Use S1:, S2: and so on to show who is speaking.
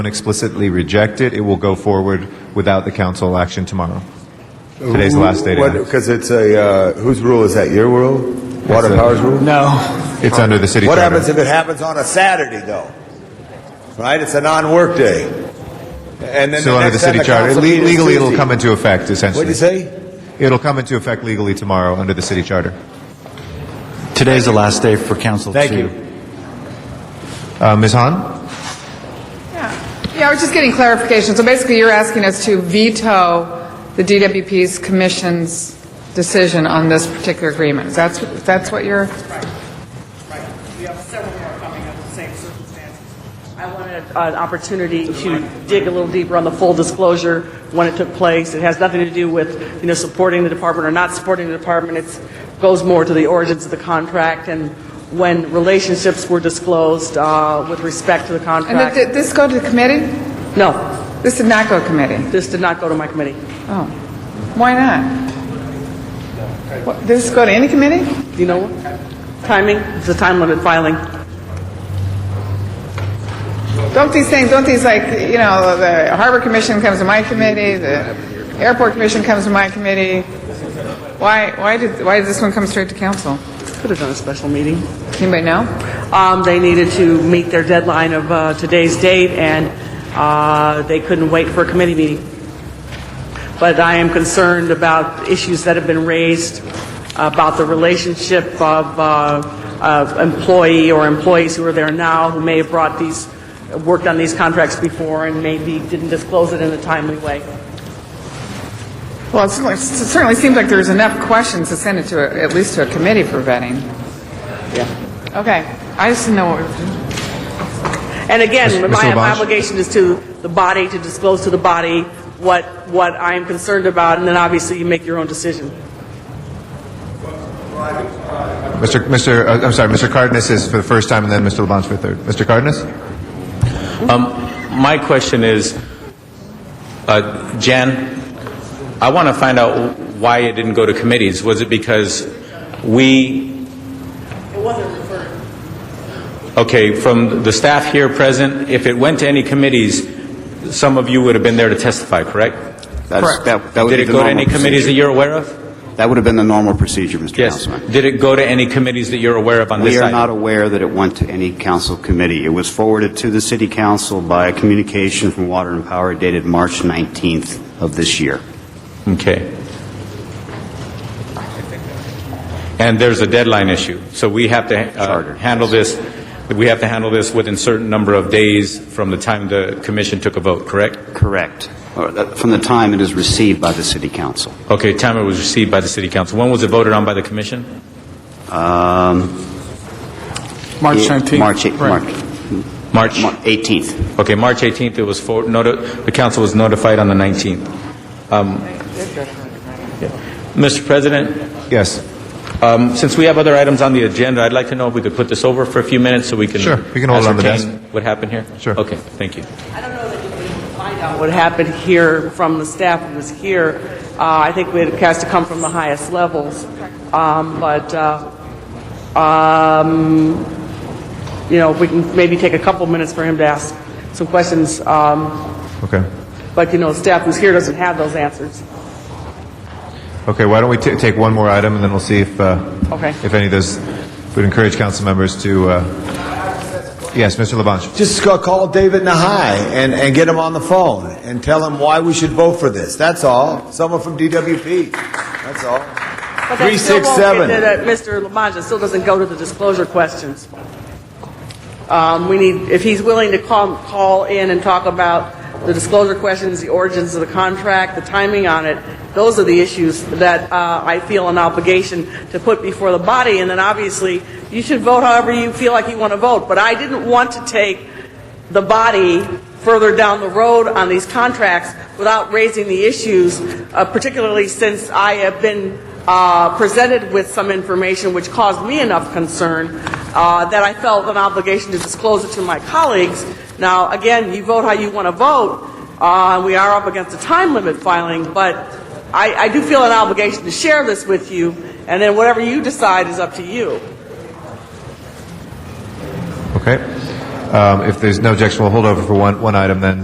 S1: don't explicitly reject it, it will go forward without the council action tomorrow. Today's the last day to act.
S2: Because it's a, uh, whose rule is that? Your rule? Water
S1: That's a-
S2: Power's rule?
S3: No.
S1: It's under the city
S2: What
S1: charter.
S2: happens if it happens on a Saturday, though? Right? It's a non-work day. And then
S1: Still
S2: the
S1: under
S2: next
S1: the city
S2: time
S1: charter.
S2: council
S1: Le-
S2: meets is
S1: Legally, it'll
S2: Tuesday.
S1: come into effect, essentially.
S2: What'd you say?
S1: It'll come into effect legally tomorrow under the city charter.
S3: Today's the last day for council
S1: Thank
S3: to.
S1: you. Uh, Ms. Han?
S4: Yeah, Yeah. I was just getting clarification. So basically, you're asking us to veto the DWP's commission's decision on this particular agreement. That's, that's what you're,
S5: Right, right. We have several more coming under the same circumstances. I wanted uh, an opportunity to dig a little deeper on the full disclosure when it took place. It has nothing to do with, you know, supporting the department or not supporting the department. It goes more to the origins of the contract and when relationships were disclosed uh, with respect to the
S4: and did-
S5: contract.
S4: did this go to committee?
S5: No,
S4: This did not go to committee?
S5: this did not go to my committee.
S4: Oh, why not? What- Did this go to any committee?
S5: Do you know what? Timing, it's a time limit filing.
S4: Don't these things, don't these like, you know, the Harbor Commission comes to my committee, the Airport Commission comes to my committee? Why, why did, why did this one come straight to council?
S5: Could have done a special meeting.
S4: Anybody know?
S5: Um, they needed to meet their deadline of uh, today's date, and uh, they couldn't wait for a committee meeting. But I am concerned about issues that have been raised about the relationship of, uh, of employee or employees who are there now who may have brought these, worked on these contracts before and maybe didn't disclose it in a timely way.
S4: Well, it certainly- it certainly seems like there's enough questions to send it to, a- at least to a committee for vetting. Yeah. Okay, I just didn't know what we were doing.
S5: And again,
S1: Ms.
S5: my, my
S1: Labange?
S5: obligation is to the body, to disclose to the body what, what I am concerned about, and then obviously you make your own decision.
S1: Mr. Mr. Uh, I'm sorry, Mr. Cardenas is for the first time, and then Mr. Labange for the third. Mr. Cardenas?
S6: My question is, uh, Jan, I want to find out why it didn't go to committees. Was it because we,
S5: It wasn't referred.
S6: okay, from the staff here present, if it went to any committees, some of you would have been there to testify, correct?
S7: That's, that, that would
S6: Did
S7: be
S6: it
S7: the
S6: go to
S7: normal
S6: any committees that
S7: procedure.
S6: you're aware of?
S7: That would have been the normal procedure, Mr.
S6: Yes.
S7: Councilman.
S6: Did it go to any committees that you're aware of on this
S7: We
S6: item?
S7: are not aware that it went to any council committee. It was forwarded to the city council by a communication from Water and Power dated March 19th of this year.
S6: Okay. And there's a deadline issue, so we have to uh,
S7: Charter.
S6: handle this, we have to handle this within certain number of days from the time the commission took a vote, correct?
S7: Correct. Or, uh, From the time it is received by the city council.
S6: Okay, time it was received by the city council. When was it voted on by the commission?
S7: March
S3: March 19th.
S7: March, eight-
S3: Right.
S6: March?
S7: March Mar- 18th.
S6: Okay, March 18th, it was, for- noti- the council was notified on the 19th. Um, yeah. Mr. President,
S1: Yes.
S6: Um, Since we have other items on the agenda, I'd like to know if we could put this over for a few minutes so we can...
S1: Sure, we can hold it on the
S6: ascertain what happened here?
S1: Sure.
S6: Okay, thank you.
S5: I don't know that you can find out what happened here from the staff who was here. Uh, I think we had, has to come from the highest levels. Um, but, uh, um, you know, we can maybe take a couple minutes for him to ask some questions. Um,
S1: Okay.
S5: but, you know, staff who's here doesn't have those answers.
S1: Okay, why don't we ta- take one more item, and then we'll see if, uh,
S5: Okay.
S1: if any of those, would encourage council members to, uh, yes, Mr. Labange.
S2: Just go call David Nahai and, and get him on the phone and tell him why we should vote for this. That's all. Someone from DWP. That's all.
S5: But that
S2: Three,
S5: still
S2: six,
S5: won't
S2: seven.
S5: get to that, Mr. Labange, it still doesn't go to the disclosure questions. Um, we need, if he's willing to call, call in and talk about the disclosure questions, the origins of the contract, the timing on it, those are the issues that, uh, I feel an obligation to put before the body, and then obviously, you should vote however you feel like you want to vote, but I didn't want to take the body further down the road on these contracts without raising the issues, uh, particularly since I have been uh, presented with some information which caused me enough concern uh, that I felt an obligation to disclose it to my colleagues. Now, again, you vote how you want to vote. Uh, We are up against a time limit filing, but I I do feel an obligation to share this with you, and then whatever you decide is up to you.
S1: Okay. Um, If there's no objection, we'll hold over for one, one item then.